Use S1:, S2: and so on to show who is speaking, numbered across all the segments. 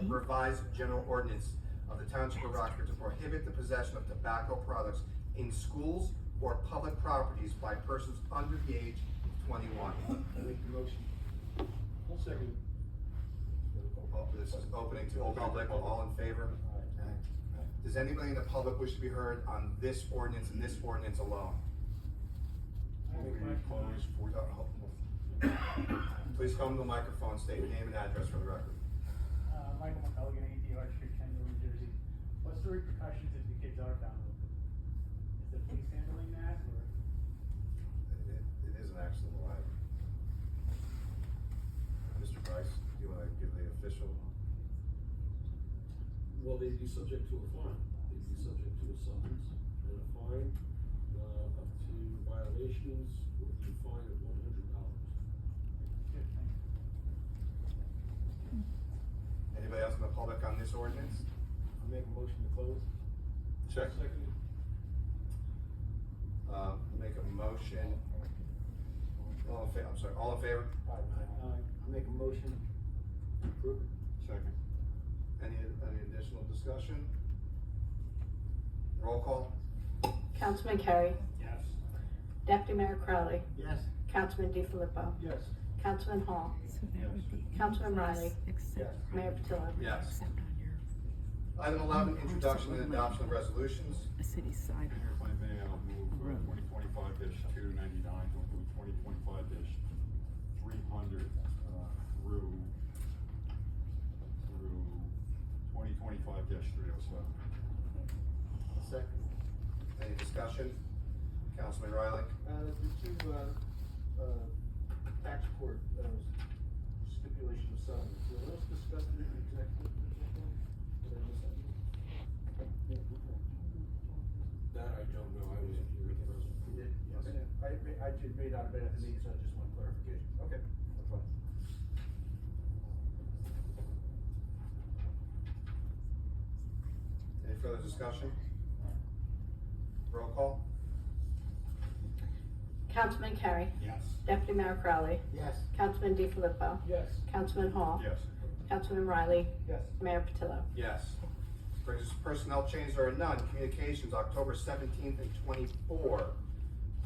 S1: of revised general ordinance of the Township of Rockford to prohibit the possession of tobacco products in schools or public properties by persons under the age of twenty-one.
S2: Make the motion. I'll second it.
S1: Oh, This is opening to the public, all in favor? Aye. Does anybody in the public wish to be heard on this ordinance and this ordinance alone? Oh, Please come to the microphone, state your name and address for the record.
S3: Uh, Michael McCulligan, ADR Street, Kendall, New Jersey. What's the repercussions if the kids are found with it? Is the police handling that or?
S1: It it- it is an action of the library. Mr. Price, do you wanna give the official?
S4: Well, they'd be subject to a fine, they'd be subject to a summons and a fine, uh, up to violations would be fined at one hundred dollars.
S3: Good, thank you.
S1: Anybody else in the public on this ordinance?
S2: I'll make a motion to close.
S1: Check.
S2: Second
S1: Uh, make a motion. All in fa- I'm sorry, all in favor?
S2: it. Aye. I'll make a motion to approve it.
S1: Second. Any, any additional discussion? Roll call?
S5: Councilman Carey,
S3: Yes.
S5: Deputy Mayor Crowley,
S2: Yes.
S5: Councilman DiFilippo,
S2: Yes.
S5: Councilman Hall,
S6: So that would be.
S5: Councilman Riley,
S6: Except.
S5: Mayor Patillo.
S1: Yes.
S6: Except on your,
S1: Item eleven, introduction and adoption of resolutions.
S6: a city side.
S7: Mayor, if I may, I'll move
S6: Right.
S7: twenty twenty-five two ninety-nine to include twenty twenty-five three hundred, uh, through, through twenty twenty-five three oh seven.
S2: Second.
S1: Any discussion? Councilman Riley?
S2: Uh, the two, uh, uh, tax court, uh, stipulation of settlement, were those discussed in the executive? Did I miss that?
S4: That I don't know, I wasn't here at the present.
S2: You did? Okay. I, I did read out a bit at the meeting, so I just want clarification. Okay. that's fine.
S1: Any further discussion? Roll call?
S5: Councilman Carey,
S7: Yes.
S5: Deputy Mayor Crowley,
S2: Yes.
S5: Councilman DiFilippo,
S2: Yes.
S5: Councilman Hall,
S7: Yes.
S5: Councilman Riley,
S2: Yes.
S5: Mayor Patillo.
S1: Yes. Brings us to personnel change, there are none. Communications, October seventeenth and twenty-four,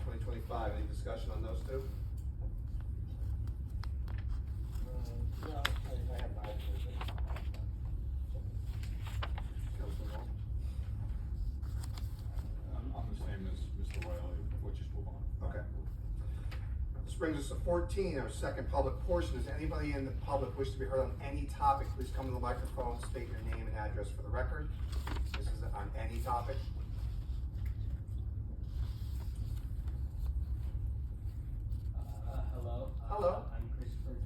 S1: twenty twenty-five. Any discussion on those two?
S2: Um, no, I, I have my.
S1: Councilman Wong?
S7: I'm, I'm the same as Mr. Riley, we'll just move on.
S1: Okay.
S7: Uh,
S1: This brings us to fourteen, our second public portion. Does anybody in the public wish to be heard on any topic? Please come to the microphone, state your name and address for the record. This is on any topic.
S8: Uh, hello. Uh,
S1: Hello.
S8: I'm Christopher.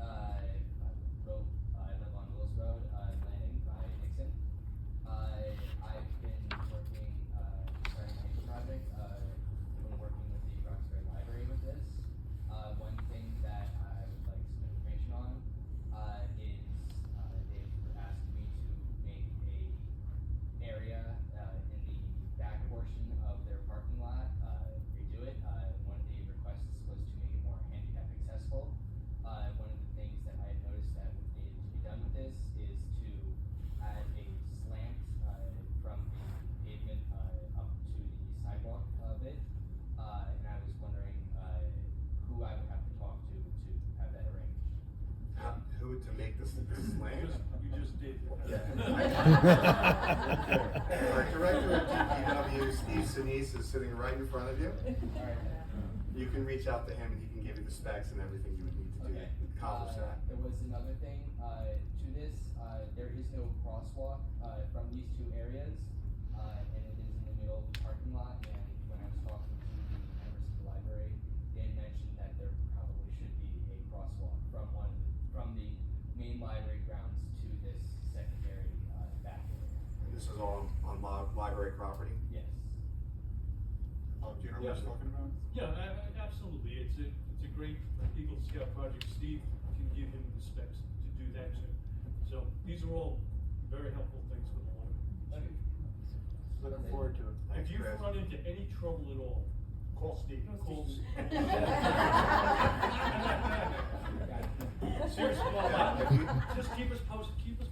S8: Uh, I wrote, I live on Willis Road, uh, in Landing by Nixon. Uh, I've been working, uh, starting my own project, uh, been working with the Roxbury Library with this. Uh, one thing that I would like some information on, uh, is, uh, they've asked me to make a area, uh, in the back portion of their parking lot, uh, redo it. Uh, one of the requests was to make it more handicap accessible. Uh, one of the things that I had noticed that would need to be done with this is to add a slant, uh, from the pavement, uh, up to the sidewalk of it. Uh, and I was wondering, uh, who I would have to talk to to have that arranged. Uh,
S1: How- Who to make this this
S7: You
S1: land?
S7: just- You just did.
S1: Our director of DPW, Steve Sinise, is sitting right in front of you.
S8: All right, then.
S1: You can reach out to him and he can give you the specs and everything you would need to do
S8: Okay.
S1: to accomplish
S8: Uh,
S1: that.
S8: There was another thing, uh, to this, uh, there is no crosswalk, uh, from these two areas, uh, and it is in the middle of the parking lot, and when I was talking to the members of the library, they had mentioned that there probably should be a crosswalk from one, from the main library grounds to this secondary, uh, back area.
S1: And This is all on li- library property.
S8: Yes.
S7: Oh, do you know what he's talking about?
S9: Yeah, a- a- absolutely, it's a, it's a great Eagle Scout project, Steve can give him the specs to do that too. So these are all very helpful things for the library.
S2: Looking forward to it.
S9: If
S1: Thanks,
S9: you
S1: Chris.
S9: run into any trouble at all,
S5: Call Steve.
S3: Call Steve.
S5: Seriously,
S3: Seriously,
S5: call him.
S3: just keep us posted, keep us